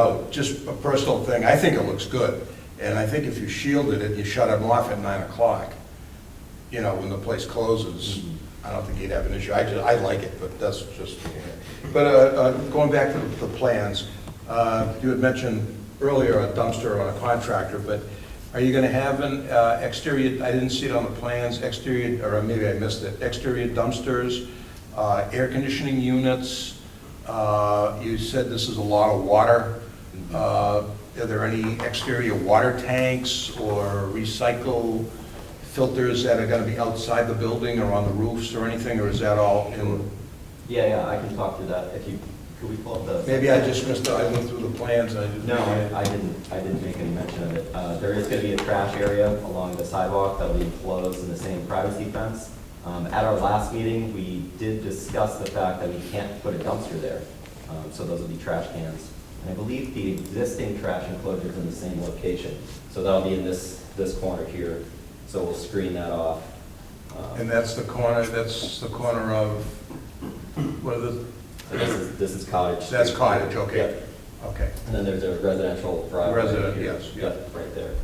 Oh, just a personal thing, I think it looks good, and I think if you shielded it, you shut them off at nine o'clock, you know, when the place closes, I don't think you'd have an issue, I, ju- I like it, but that's just, but, uh, uh, going back to the plans, uh, you had mentioned earlier a dumpster on a contractor, but are you gonna have an, uh, exterior, I didn't see it on the plans, exterior, or maybe I missed it, exterior dumpsters, uh, air conditioning units, uh, You said this is a lot of water. Mm-hmm. Uh, Are there any exterior water tanks or recycle filters that are going to be outside the building or on the roofs or anything, or is that all in? Yeah, yeah, I can talk to that if you, could we pull up the? Maybe I just missed, I went through the plans, I didn't. No, I I didn't, I didn't make any mention of it. Uh, There is going to be a trash area along the sidewalk that'll be enclosed in the same privacy fence. Um, At our last meeting, we did discuss the fact that we can't put a dumpster there, Um, so those will be trash cans. And I believe the existing trash enclosure is in the same location, so that'll be in this, this corner here, so we'll screen that off. Um, And that's the corner, that's the corner of, what are the, So this is, this is cottage. that's Street. cottage, okay. Yep. Okay. And then there's a residential driveway. Resident, here. yes, yeah. Yep, right there.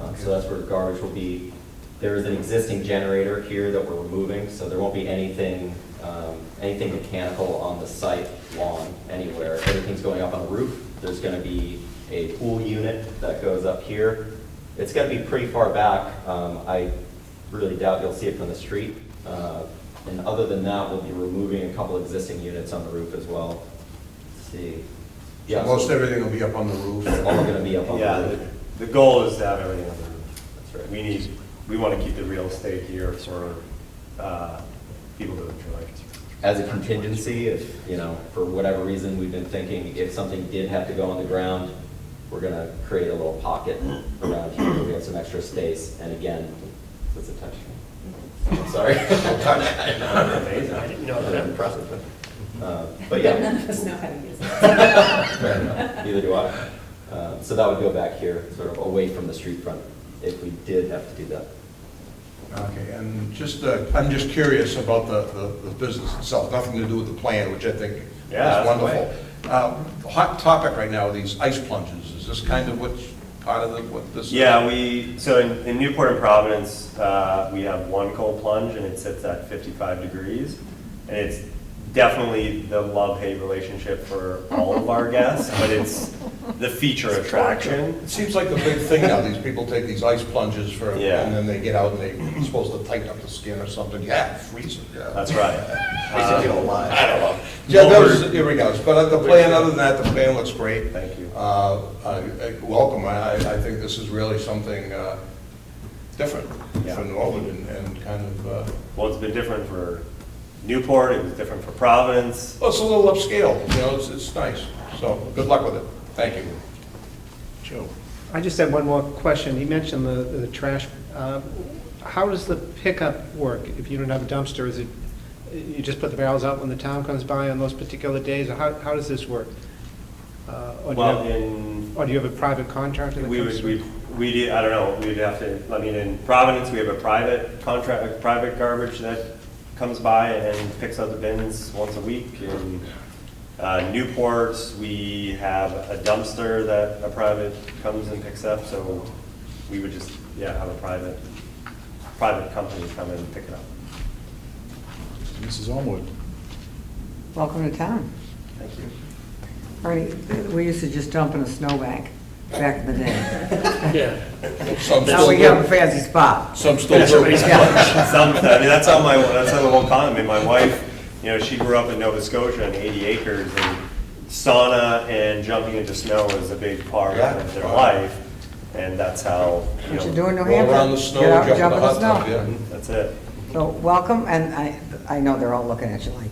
Um, So that's where garbage will be. There is an existing generator here that we're removing, so there won't be anything, um, anything mechanical on the site lawn anywhere. Everything's going up on the roof. There's going to be a pool unit that goes up here. It's going to be pretty far back. Um, I really doubt you'll see it from the street. Uh, And other than that, we'll be removing a couple existing units on the roof as well. Let's See. Yeah, so- Most everything will be up on the roof. it's all gonna be up on Yeah, the roof. the, the goal is to have everything on the roof. That's right. We need, we want to keep the real estate here for uh, people to enjoy. As a contingency, if, you know, for whatever reason, we've been thinking if something did have to go on the ground, we're gonna create a little pocket around here, where we have some extra space, and again, it's a touch. I'm sorry. Amazing. I didn't know that. Impressive. Uh, But yeah. None of us know how to use it. Fair enough. Neither do I. Uh, So that would go back here, sort of away from the street front, if we did have to do that. Okay, and just, uh, I'm just curious about the, the- the business itself, nothing to do with the plan, which I think Yeah, is that's wonderful. Uh, Hot topic right now, these ice plunges, is this kind of what's part of the, what this? is? Yeah, we, so in in Newport and Providence, uh, we have one cold plunge and it sits at 55 degrees. And it's definitely the love-hate relationship for all of our guests, but it's the feature attraction. It seems like the big thing now, these people take these ice plunges for, and Yeah. then they get out and they're supposed to tighten up the skin or something, yeah, freeze it, yeah. That's right. Basically Um, alive. I don't know. Yeah, that was, here we go, but the plan, other than that, the plan looks great. Thank you. Uh, I- I- Welcome, I, I think this is really something uh, different Yeah. for Norwood and- and kind of, uh, Well, it's been different for Newport, it was different for Providence. well, it's a little upscale, you know, it's, it's nice, so good luck with it, thank you. Joe? I just had one more question. You mentioned the, the trash. uh, How does the pickup work? If you don't have a dumpster, is it, you just put the barrels out when the town comes by on those particular days? Or how, how does this work? Uh, Or do you Well, have, in, or do you have a private contractor that we comes? would, we, we did, I don't know, we'd have to, I mean, in Providence, we have a private contract, a private garbage that comes by and picks up the bins once a week. In uh, Newport, we have a dumpster that a private comes and picks up, so we would just, yeah, have a private, private company come and pick it up. Mrs. Elmwood. Welcome to town. Thank you. All right, we used to just dump in a snowbank back in the day. Some Now we still have a do, fancy spot. some still do. Some, I mean, that's how my, that's how the whole economy, my wife, you know, she grew up in Nova Scotia on 80 acres, and sauna and jumping into snow is a big part of their Yeah. life, and that's how, you What you know, do in New Roll Hampshire? around the snow, get out and jump in the hot tub, snow. yeah. that's it. So welcome, and I, I know they're all looking at you like,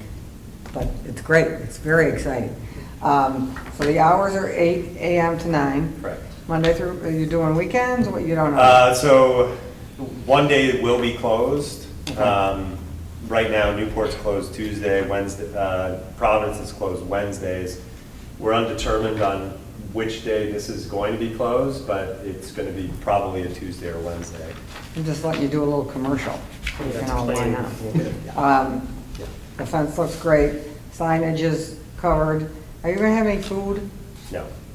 but it's great, it's very exciting. Um, So the hours are eight AM to nine. Correct. Monday through, are you doing weekends, what, you don't know? Uh, So, one day will be closed. Um, Right now, Newport's closed Tuesday, Wednesday, uh, Providence is closed Wednesdays. We're undetermined on which day this is going to be closed, but it's going to be probably a Tuesday or Wednesday. I'm just letting you do a little commercial. You know, why not? Um, The fence looks great, signage is covered. Are you gonna have any food? No,